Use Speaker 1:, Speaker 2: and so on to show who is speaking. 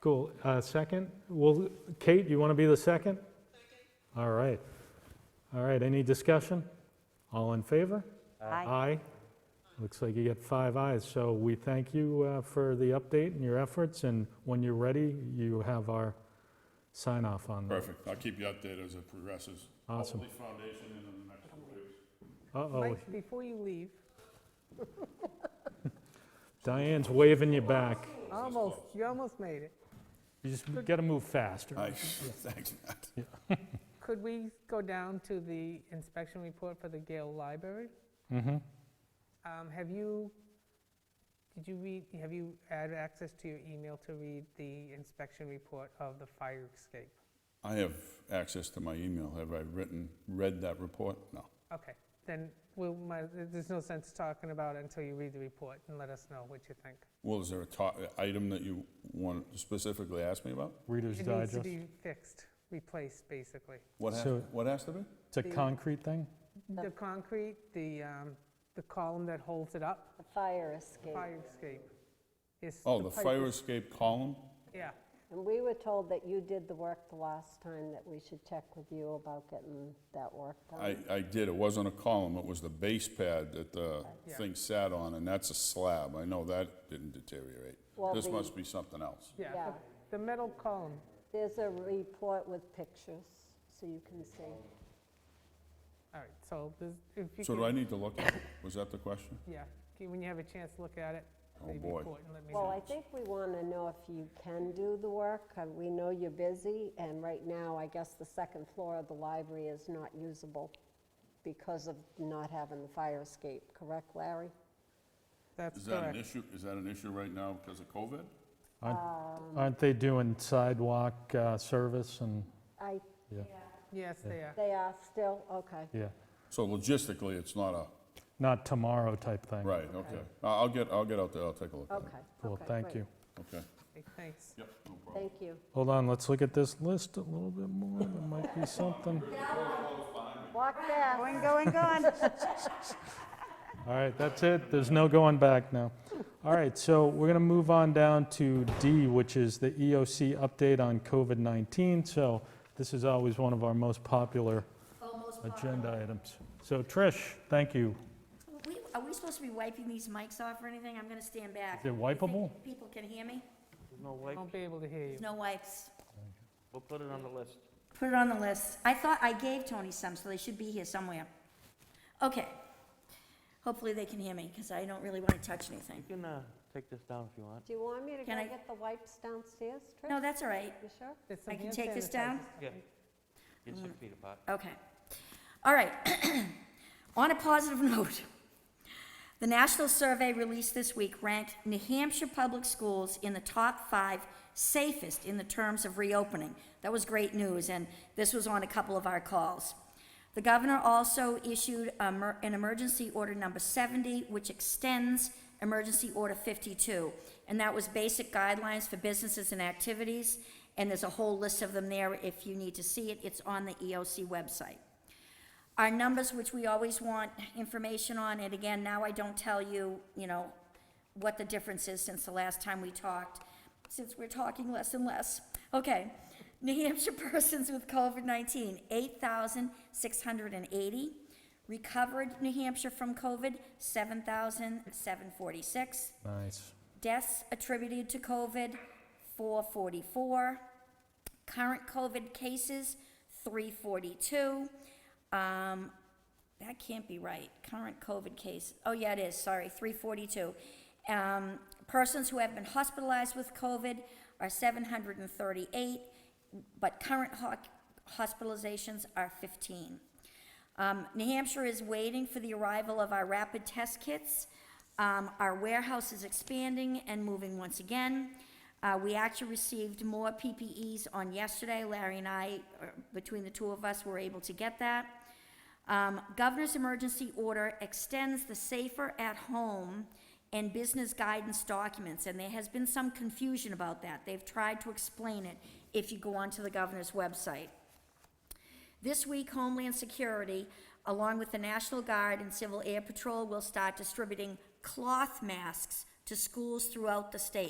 Speaker 1: Cool. Uh, Second? Well, Kate, you want to be the second? Second. All right. All right, any discussion? All in favor?
Speaker 2: Aye.
Speaker 1: Looks like you get five ayes. So we thank you uh, for the update and your efforts, and when you're ready, you have our sign off on that.
Speaker 3: Perfect. I'll keep you updated as it progresses.
Speaker 1: Awesome.
Speaker 3: Hopefully foundation in the next couple weeks.
Speaker 1: Uh-oh,
Speaker 4: Mike, before you leave,
Speaker 1: Diane's waving you back.
Speaker 4: almost, you almost made it.
Speaker 1: You just got to move faster.
Speaker 3: Aye, thanks, Matt.
Speaker 4: Could we go down to the inspection report for the Gale Library?
Speaker 1: Mm-hmm.
Speaker 4: Um, Have you, did you read, have you had access to your email to read the inspection report of the fire escape?
Speaker 3: I have access to my email. Have I written, read that report? No.
Speaker 4: Okay, then we'll, my- there's no sense talking about it until you read the report and let us know what you think.
Speaker 3: Well, is there a to, item that you want to specifically ask me about?
Speaker 1: Reader's
Speaker 4: It needs to
Speaker 1: Digest.
Speaker 4: be fixed, replaced, basically.
Speaker 3: What has,
Speaker 1: So-
Speaker 3: what has to be?
Speaker 1: It's a concrete thing?
Speaker 4: The concrete, the, um, the column that holds it up,
Speaker 2: The fire escape.
Speaker 4: fire escape. is
Speaker 3: Oh, the
Speaker 4: pipe
Speaker 3: fire
Speaker 4: is-
Speaker 3: escape column?
Speaker 4: Yeah.
Speaker 2: And we were told that you did the work the last time, that we should check with you about getting that work
Speaker 3: I,
Speaker 2: done.
Speaker 3: I did. It wasn't a column. It was the base pad that the
Speaker 4: Yeah.
Speaker 3: thing sat on, and that's a slab. I know that didn't deteriorate.
Speaker 2: Well,
Speaker 3: This
Speaker 2: the-
Speaker 3: must be something else.
Speaker 4: Yeah,
Speaker 2: Yeah.
Speaker 4: the- the metal column,
Speaker 2: There's a report with pictures, so you can see.
Speaker 4: all right, so there's- if you
Speaker 3: So do I
Speaker 4: can,
Speaker 3: need to look at it? Was that the question?
Speaker 4: yeah, can- when you have a chance, look at it.
Speaker 3: Oh,
Speaker 4: the
Speaker 3: boy.
Speaker 4: report and let me
Speaker 2: Well,
Speaker 4: know.
Speaker 2: I think we want to know if you can do the work. Uh, We know you're busy, and right now, I guess the second floor of the library is not usable because of not having the fire escape, correct, Larry?
Speaker 4: That's
Speaker 3: Is that an
Speaker 4: correct.
Speaker 3: issue, is that an issue right now because of COVID?
Speaker 1: Aren't aren't they doing sidewalk uh, service and,
Speaker 2: I,
Speaker 1: yeah,
Speaker 4: Yes, they are.
Speaker 2: they are still, okay.
Speaker 1: yeah.
Speaker 3: So logistically, it's not a,
Speaker 1: Not tomorrow type thing.
Speaker 3: right, okay. I- I'll get, I'll get out there, I'll take a look at it.
Speaker 2: Okay.
Speaker 1: Cool,
Speaker 2: okay,
Speaker 1: thank
Speaker 2: great.
Speaker 1: you.
Speaker 3: Okay.
Speaker 4: Okay, Thanks.
Speaker 3: Yep, no problem.
Speaker 2: Thank you.
Speaker 1: Hold on, let's look at this list a little bit more. There might be something.
Speaker 2: Walk fast.
Speaker 5: Going, going, going.
Speaker 1: All right, that's it. There's no going back now. All right, so we're going to move on down to D, which is the EOC update on COVID-19. So this is always one of our most popular
Speaker 2: Oh,
Speaker 1: agenda items. So Trish, thank you.
Speaker 6: We, are we supposed to be wiping these mics off or anything? I'm gonna stand back.
Speaker 1: Is it
Speaker 6: You think
Speaker 1: wipeable?
Speaker 6: People can hear me?
Speaker 5: No, wait,
Speaker 4: Won't be able to hear you.
Speaker 6: There's no wipes.
Speaker 5: we'll put it on the list.
Speaker 6: Put it on the list. I thought I gave Tony some, so they should be here somewhere. Okay. Hopefully they can hear me, because I don't really wanna touch anything.
Speaker 5: You can uh, take this down if you want.
Speaker 2: Do you want me to go
Speaker 6: Can I-
Speaker 2: get the wipes downstairs, Trish?
Speaker 6: No, that's all right.
Speaker 2: You sure?
Speaker 4: There's some
Speaker 6: I can
Speaker 4: hand
Speaker 6: take this
Speaker 4: sanitizer
Speaker 6: down?
Speaker 4: stuff.
Speaker 5: Yeah. Get six feet apart.
Speaker 6: Okay. All right. On a positive note, the national survey released this week ranked New Hampshire public schools in the top five safest in the terms of reopening. That was great news, and this was on a couple of our calls. The governor also issued a mer- an emergency order number 70, which extends emergency order 52, and that was basic guidelines for businesses and activities, and there's a whole list of them there if you need to see it. It's on the EOC website our numbers, which we always want information on, and again, now I don't tell you, you know, what the difference is since the last time we talked, since we're talking less and less. Okay, New Hampshire persons with COVID-19, 8,680. Recovered New Hampshire from COVID, 7,746.
Speaker 1: Nice.
Speaker 6: Deaths attributed to COVID, 444. Current COVID cases, 342. Um, That can't be right. Current COVID case, oh yeah, it is, sorry, 342. Um, Persons who have been hospitalized with COVID are 738, but current ho- hospitalizations are 15. Um, New Hampshire is waiting for the arrival of our rapid test kits. Um, Our warehouse is expanding and moving once again. Uh, We actually received more PPEs on yesterday. Larry and I, or between the two of us, were able to get that. Um, Governor's emergency order extends the safer at home and business guidance documents, and there has been some confusion about that. They've tried to explain it if you go onto the governor's website. This week, Homeland Security, along with the National Guard and Civil Air Patrol, will start distributing cloth masks to schools throughout the state.